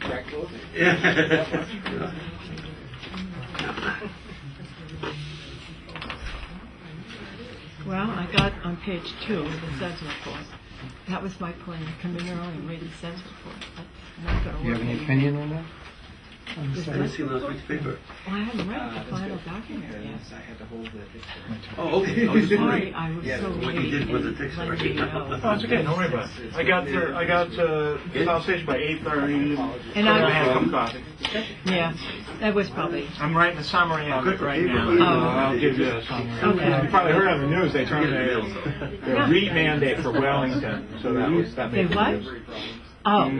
back closing. Well, I got on page two of the SEDS report. That was my plan, come in early and read the SEDS report. That's not gonna work. Do you have any anymore. opinion on that? On the Is side? I that- haven't seen last week's paper. Well, I haven't read Uh, the that's final good. document Yeah, yet. that's- I had to hold the picture. Oh, okay, I was just Sorry, wondering. I was Yeah, so what late you did with the in text letting already. you know. Oh, it's okay, don't worry about it. I got, to- I got to the South Station by eight thirty, And and I had I, some coffee. yeah, that was probably, I'm writing a summary of it right now. Oh. I'll give you a summary. Okay. You probably heard on the news, they turned Yeah. a a re-mandate for Wellington, so that was, that they made what? the news. Oh,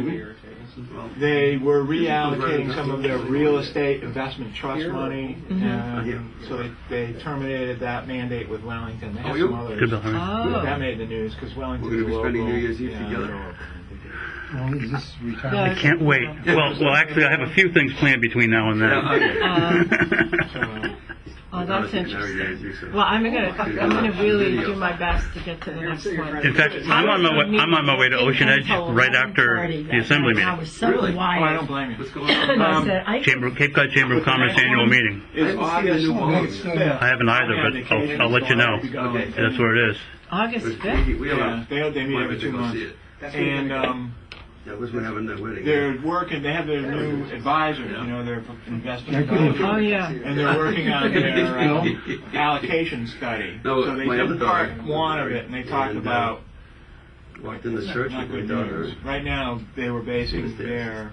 They were reallocating some of their real estate investment trust money, Mm-hmm. and Mhm. so they, they terminated that mandate with Wellington. They Oh, had you- some others. Good, Bill. How are you? That oh. made the news, because Wellington's a We're gonna be local. spending New Year's Eve yeah, together. they're local. Well, is this Yeah. retirement? I can't wait. Well, well, actually, I have a few things planned between now and uh, then. Oh, that's interesting. Well, interesting. I'm gonna, I'm gonna really do my best to get to the next one. In fact, I'm on my way, I'm on my way to Ocean Edge right after the assembly I meeting. was so Really? Oh, I wired. don't blame you. What's going on? And I Um, said, I Chamber, of- Cape Cod Chamber of Commerce annual meeting. It's I haven't seen the new August ball. 5th. I haven't either, but I'll, I'll let you know. Okay. That's where it is. August We- 5th? We, we Yeah, are. they, they meet Why every would you two go months. see it? And, um, That was when having that wedding. they're working, they have their new advisors, you know, their I investment. couldn't- advisors. Oh, yeah. And they're working on their um, allocation study. No, So they my other took daughter- part one of it and they talked And, uh, about Walked in the church not with my good daughter. news. Right now, they were basing their,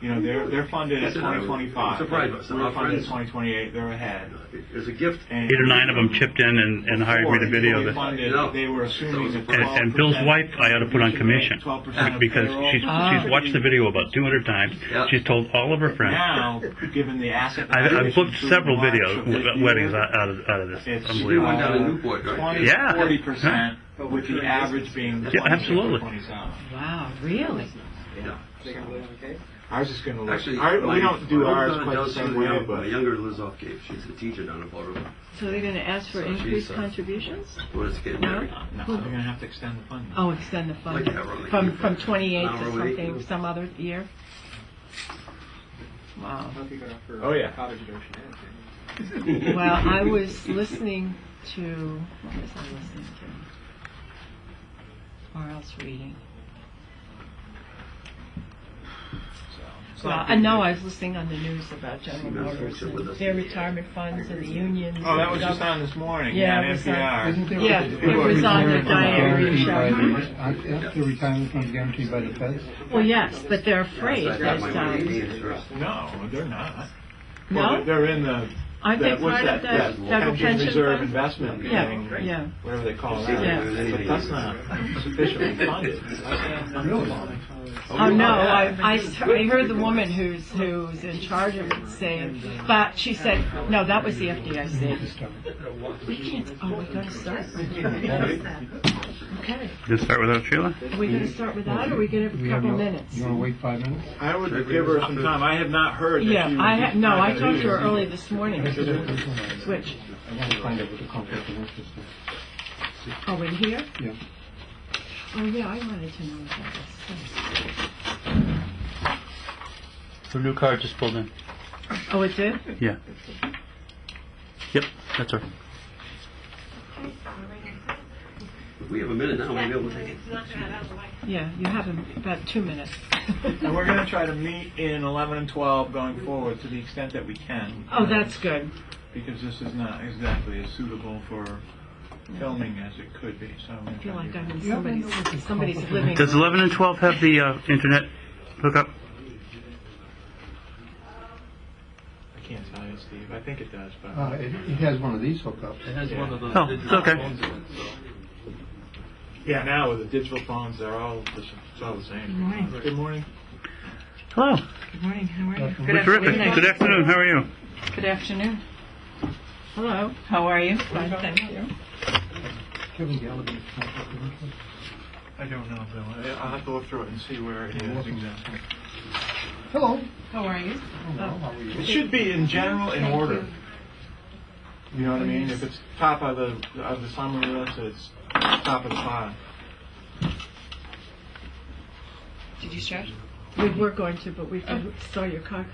you know, they're, they're funded at Listen, I'm 2025. surprised by some of We're our funded at friends. 2028, they're ahead. As a gift. And- Eight or nine of them chipped in and, and hired me to Before they video this. funded, No. They were assuming that And, 12% and Bill's wife, I ought to put on commission 12% of because payroll. she's, Ah. Oh. she's watched the video about 200 times. She's told all of her friends. Now, given the asset. I've, I've booked valuation several through March videos, of this w- year, weddings out out of, out of this. It's They Unbelievable. went down to Newport, right? twenty, Yeah. forty percent, with the average being Yeah, twenty-six or absolutely. twenty-seven. Wow, really? Yeah. They gonna live on cake? I was just gonna look, Actually, I, my- we don't do my ours daughter quite the does same too, way, yeah. My but. younger Lizoff gave, she's a teacher down in Florida. So they're gonna ask for So she's, increased uh, contributions? Well, it's getting No. married. No, they're gonna have to extend the funding. Oh, extend the fund Like that, really. from, from 28 Now to we're waiting. something, some other year? Wow. How you got for Oh, yeah. college adoption, yeah. Well, I was listening to, what was I listening to? Or else reading. Well, I know I was listening on the news about General those Motors folks are with and us. their retirement funds and the unions. Oh, that was and just on this morning, Yeah, on it was uh, on- NPR. Isn't there- Yeah, isn't it there was on the retirement fund diary guaranteed by show. the- aren't- Aren't the retirement funds guaranteed by the feds? stuff. Well, yes, but they're afraid So I got that, my money um, in trust. No, they're not. Well, no? They're in the, Aren't they that, what's part that, of that the federal pension pension reserve fund? investment thing, Yeah, yeah. whatever they call See, that. there's anything- But that's not sufficiently funded. Really? Oh, no, I, I s- I heard the woman who's, who's in charge of it saying, but she said, no, that was the FDIC. We can't, oh, we're gonna start? Okay, Just start without Sheila? are we gonna start with that, or are we gonna have a You have couple no- minutes? You wanna wait five minutes? I would give her some time. I have not heard that Yeah, she was I, ha- no, I talked to her earlier. early this morning, switch, I wanna find out what the conflict of interest is. oh, in here? Yeah. Oh, yeah, I wanted to know about this. Her new car just pulled in. Oh, it did? Yeah. Yep, that's her. If We have a minute now, maybe we'll take it. Yeah, you have about two minutes. And we're going to try to meet in 11 and 12 going forward to the extent that we can. Oh, that's good, Because this is not exactly as suitable for filming as it could be, so. I feel like I'm in somebody's, somebody's living Does 11 and 12 have the uh, internet hookup? I can't tell you, Steve. I think it does, but. Uh, it, it has one of these hookups. Oh, it's okay. Yeah, now with the digital phones, they're all, the s- it's all the same. Good morning. Good morning. Hello. Good Terrific. Good afternoon. How are you? Good afternoon. Hello, how are you? Fine, thank you. Kevin Gallagher's conflict of interest. I don't know, Bill. I- I'll have to look through it and see where it is exactly. Hello. How are you? Hello, how are you? It should be in general in order. You know what I mean? If it's top of the, of the summary list, it's top of the file. Did you stretch? Oh. we were going to, but we saw your car come